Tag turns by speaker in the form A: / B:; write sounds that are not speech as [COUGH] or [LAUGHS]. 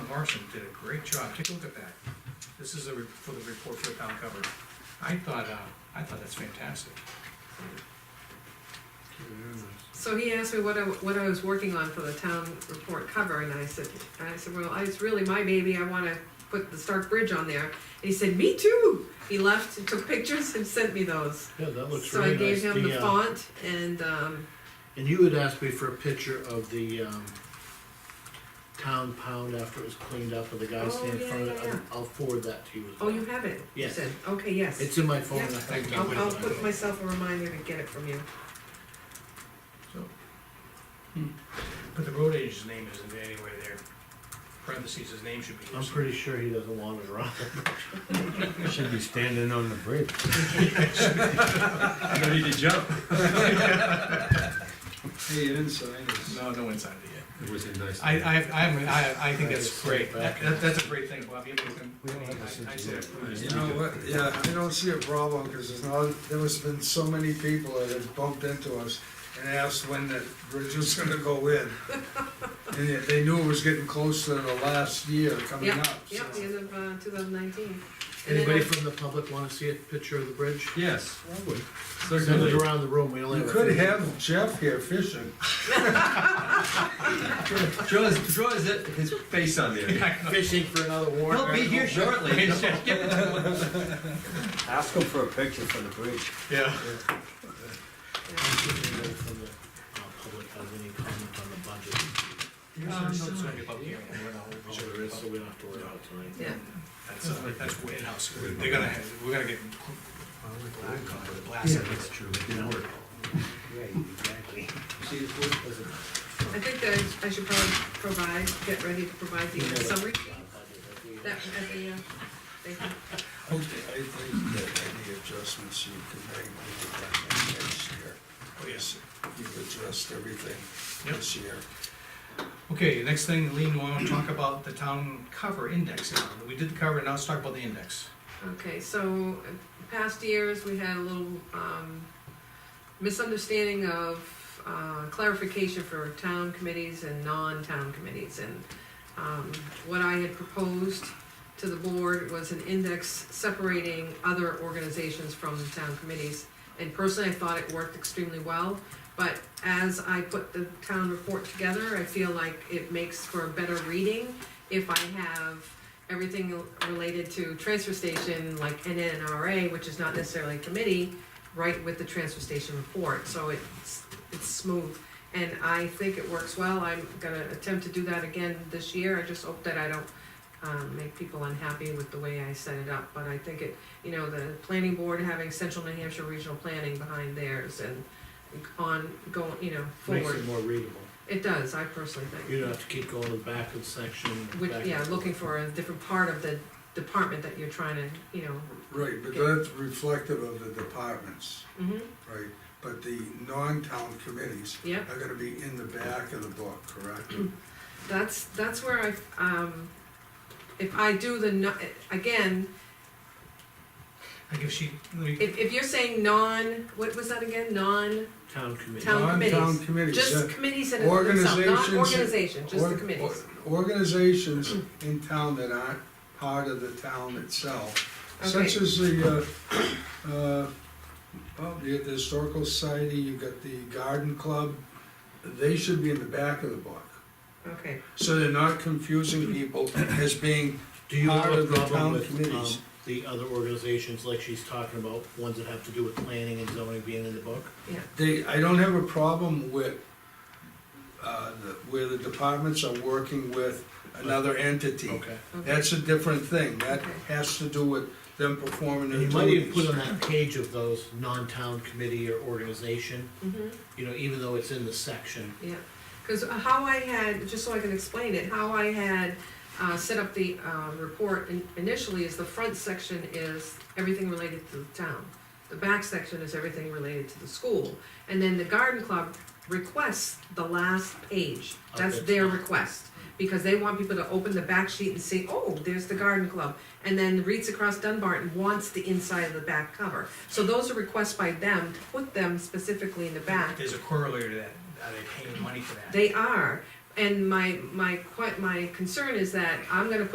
A: Morrison did a great job, take a look at that. This is a, re- for the report for the town cover. I thought, uh, I thought that's fantastic.
B: So he asked me what I, what I was working on for the town report cover, and I said, and I said, well, it's really my baby, I wanna put the Stark Bridge on there. And he said, me too! He left and took pictures and sent me those.
C: Yeah, that looks
B: So I
C: really nice.
B: gave him the
C: uh,
B: font and, um,
C: And you had asked me for a picture of the, um, town pound after it was cleaned up, and the guy
B: Oh,
C: standing in
B: yeah,
C: front of it,
B: yeah,
C: I'll- I'll forward that to you as well.
B: oh, you have it? you
C: Yes.
B: said. Okay, yes.
C: It's in my phone. I
B: Yeah.
C: have it.
A: Thank you.
B: I'll, I'll put myself a reminder to get it from you.
A: So. hmm. But the road agent's name isn't anywhere there. Parentheses, his name should be. there
C: I'm
A: somewhere.
C: pretty sure he doesn't want it around.
B: [LAUGHS]
D: Should be standing on the bridge.
E: Ready to jump. Hey, you didn't sign this.
A: No, no one signed it yet.
D: It was a nice.
A: I, I, I, I, I think
C: I
A: that's
C: just
A: great.
C: sit
A: That,
C: back
A: that- that's a great thing, Bob. You
D: We don't have a
A: have
D: sense
A: I
D: of
A: said, [LAUGHS]
D: humor.
E: You
A: "Nice."
E: know what, yeah,
F: I don't see a problem, because there's not, there has been so many people that have bumped into us and asked when that bridge was gonna go in.
A: [LAUGHS]
F: And yet they knew it was getting close to the last year coming
B: Yeah,
F: up,
B: yeah, the
F: so.
B: end of, uh, two thousand nineteen.
C: Anybody from the public wanna see a picture of the bridge?
E: yes,
C: Send it
E: certainly.
C: around the room, we only
F: You
C: have. a
F: could
C: few.
F: have Jeff here fishing.
E: Draw his, draw his, his face on there.
C: Fishing for another warrant.
E: [LAUGHS] He'll be here
C: article.
E: shortly.
D: Ask him for a picture for the bridge.
A: Yeah.
C: Anybody from the, uh, public has any comment on the budget?
A: Um, it's gonna be a public hearing. We're gonna hold-
C: Oh, there is, so we don't have to worry about it tonight.
B: Yeah,
A: That's, uh, that's way in-house. We're- They're gonna, have- we're gonna get blasted.
D: That's true. It didn't work.
B: I think that I- I should probably provide, get ready to provide the summary sheet that, at the, uh, thank you.
F: I think that any adjustments you can make, you can make next year.
A: Oh, yes.
F: You've addressed everything
A: Yep.
F: this year.
A: Okay, next thing, Lean, we wanna talk about the town cover index. now. We did the cover, now let's talk about the index.
B: Okay, so uh, past years, we had a little um, misunderstanding of uh, clarification for town committees and non-town committees. And um, what I had proposed to the board was an index separating other organizations from the town committees. And personally, I thought it worked extremely well, but as I put the town report together, I feel like it makes for better reading if I have everything related to transfer station, like NNRA, which is not necessarily a committee, right with the transfer station report, so it's, it's smooth. And I think it works well, I'm gonna attempt to do that again this year, I just hope that I don't, um, make people unhappy with the way I set it up, but I think it, you know, the planning board having Central New Hampshire Regional Planning behind theirs and on, going, you know,
C: Makes
B: forward.
C: it more readable.
B: It does, I personally think.
C: You don't have to keep going to the back of the section. and
B: Which,
C: back
B: yeah,
C: and
B: looking
C: forth.
B: for a different part of the department that you're trying to, you know,
F: Right, but
B: Yeah.
F: that's reflective of the departments,
B: mhm,
F: right? But the non-town committees
B: yep. Mm-hmm.
F: are gonna be in the back of the book, correct?
B: That's, that's where I, um, if I do the, no- again,
A: I give she, let me,
B: if, if you're saying non, what was that again, non,
C: Town committee.
B: Town committees.
F: Non-town committees.
B: just
F: uh,
B: committees and itself, not
F: Organizations-
B: organization, just the
F: or-
B: committees.
F: or- Organizations in town that aren't part of the town itself, such
B: Okay.
F: as the, uh, uh, well, the the Historical Society, you've got the Garden Club, they should be in the back of the book.
B: Okay,
F: So they're not confusing people as being
C: Do you have
F: Part
C: a
F: of the
C: problem
F: town
C: with, um,
F: committees.
C: the other organizations, like she's talking about, ones that have to do with planning and zoning being in the book?
B: yeah,
F: They, I don't have a problem with, uh, the- where the departments are working with another entity.
C: Okay.
B: okay,
F: That's a different thing, that
B: Okay.
F: has to do with them performing
C: And
F: their
C: you might even
F: duties.
C: put on that page of those non-town committee or organization,
B: mhm.
C: you know, even though it's in the section.
B: Yeah, because how I had, just so I can explain it, how I had uh, set up the uh, report in- initially is the front section is everything related to the town. The back section is everything related to the school. And then the garden club requests the last page. That's
C: Okay.
B: their request. Because they want people to open the back sheet and see, oh, there's the garden club. And then Reads Across Dunbarton wants the inside of the back cover. So those are requests by them to put them specifically in the back.
A: there's a corollary to that. Are they paying money for that?
B: They are, And my, my, que- my concern is that I'm gonna put